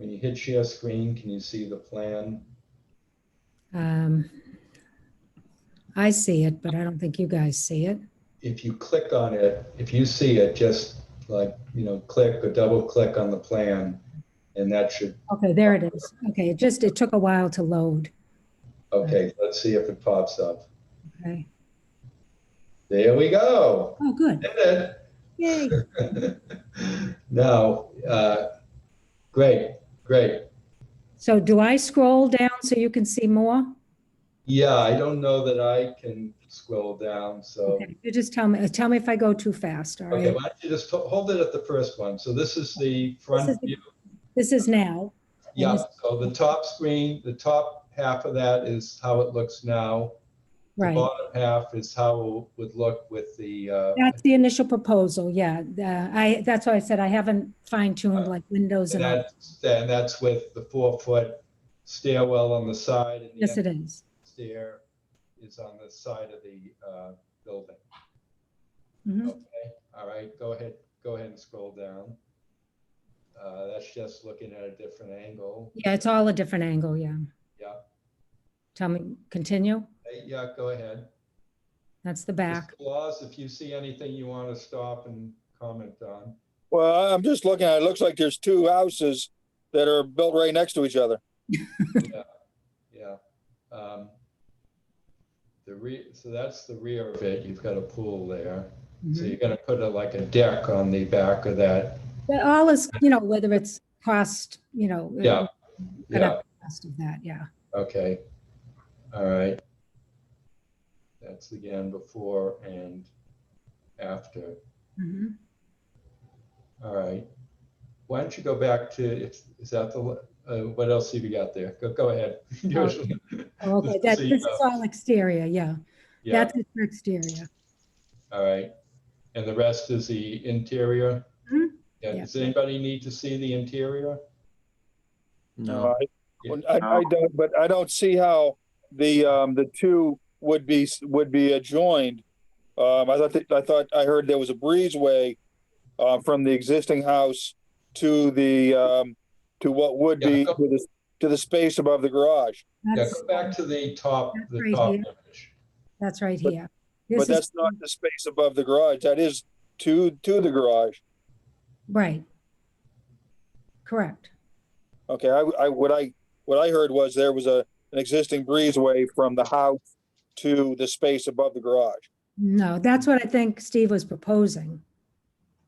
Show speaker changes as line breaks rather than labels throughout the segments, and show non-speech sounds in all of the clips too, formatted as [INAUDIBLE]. you hit share screen, can you see the plan?
Um, I see it, but I don't think you guys see it.
If you click on it, if you see it, just like, you know, click or double click on the plan. And that should,
Okay, there it is. Okay, it just, it took a while to load.
okay, let's see if it pops up.
Okay.
There we go.
Oh, good.
Did it.
Yay.
No, uh, great, great.
So do I scroll down so you can see more?
Yeah, I don't know that I can scroll down, so.
Okay, You just tell me, tell me if I go too fast, all
Okay,
right?
why don't you just ho- hold it at the first one? So this is the
This
front
is the-
view.
This is now.
Yeah, so the top screen, the top half of that is how it looks now. The
Right.
bottom half is how it would look with the, uh,
That's the initial proposal, yeah. Uh, I, that's why I said I haven't fine tuned like windows
and
and all.
that's, and that's with the four-foot stairwell on the side and the
Yes, it is.
stair is on the side of the uh, building.
Mhm.
Okay, all right, go ahead, go ahead and scroll down. Uh, That's just looking at a different angle.
Yeah, it's all a different angle, yeah.
Yeah,
Tell me, continue.
Hey, yeah, go ahead.
That's the back.
Laws, if you see anything you want to stop and comment on.
Well, I'm just looking at, it It looks like there's two houses that are built right next to each other.
Yeah. Um, The re, so that's the rear of it. You've got a pool there. So
Mhm.
you're gonna put a- like a deck on the back of that.
But all is, you know, whether it's cost, you know. uh,
Yeah,
cut
yeah.
out the cost of that, yeah.
Okay, all right. That's again before and after.
Mhm.
All right. Why don't you go back to, is is that the, uh, what else have you got there? Go, go ahead. [LAUGHS] Usually-
Oh, Okay,
Just
that,
so you
this
know.
is all exterior, yeah.
Yeah,
That's it for exterior.
all right. And the rest is the interior?
Mhm.
Yeah,
Yeah.
does anybody need to see the interior?
No. I, I don't, but I don't see how the, um, the two would be, would be adjoined. Um, I thought, that- I thought, I heard there was a breezeway, uh, from the existing house to the, um, to what would be,
Yeah, go-
to the, to the space above the garage.
Yeah,
That's,
go back to the top,
That's
the
right
top
here.
image.
that's right
But-
here.
But
This is,
that's not the space above the garage. That is to, to the garage.
right. Correct.
Okay, I, I, what I, what I heard was there was a, an existing breezeway from the house to the space above the garage.
No, that's what I think Steve was proposing.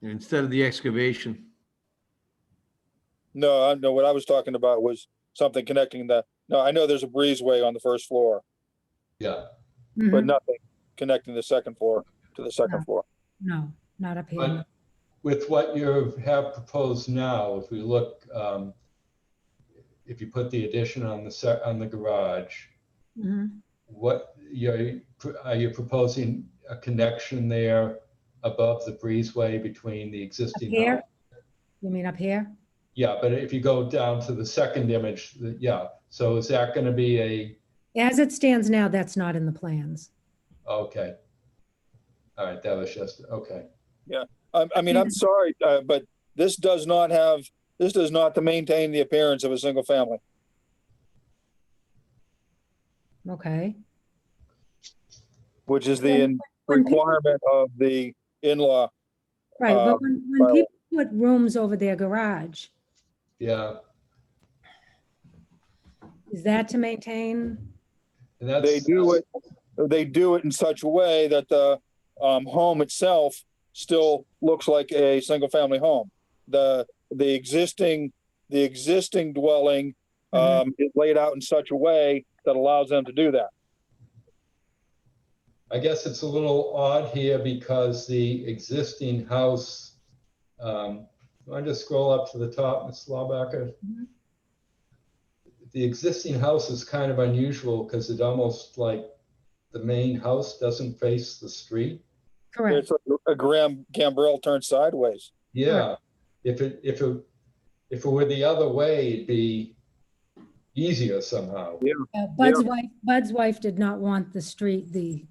Instead of the excavation,
No, I know what I was talking about was something connecting the, no, I know there's a breezeway on the first floor,
Yeah,
Mhm.
but nothing connecting the second floor to the second floor.
No, not up here.
but with what you have proposed now, if we look, um, if you put the addition on the, se- on the garage,
Mhm.
What, you're, are you proposing a connection there above the breezeway between the
Up
existing?
here?
house?
You mean up here?
Yeah, but if you go down to the second image, the- yeah, so is that gonna be a,
As it stands now, that's not in the plans.
okay. All right, that was just, okay,
I, I mean, I'm sorry, uh, but this does not have, this does not to maintain the appearance of a single family.
Okay.
Which is the in-
When people-
requirement of the in-law.
Right,
um,
but when, when
well-
people put rooms over their garage,
yeah,
is that to maintain?
and that's.
They do it, they do it in such a way that the, um, home itself still looks like a single-family home. The, the existing, the existing dwelling
Mhm.
um, is laid out in such a way that allows them to do that.
I guess it's a little odd here because the existing house, um, I just scroll up to the top, Ms. Laubacker.
Mhm.
The existing house is kind of unusual because it almost like the main house doesn't face the street.
Correct.
It's like a Graham Gambrell turned sideways.
Yeah, if it, if it, if it were the other way, it'd be easier somehow.
Uh, Bud's wife, Bud's wife did not want the street, the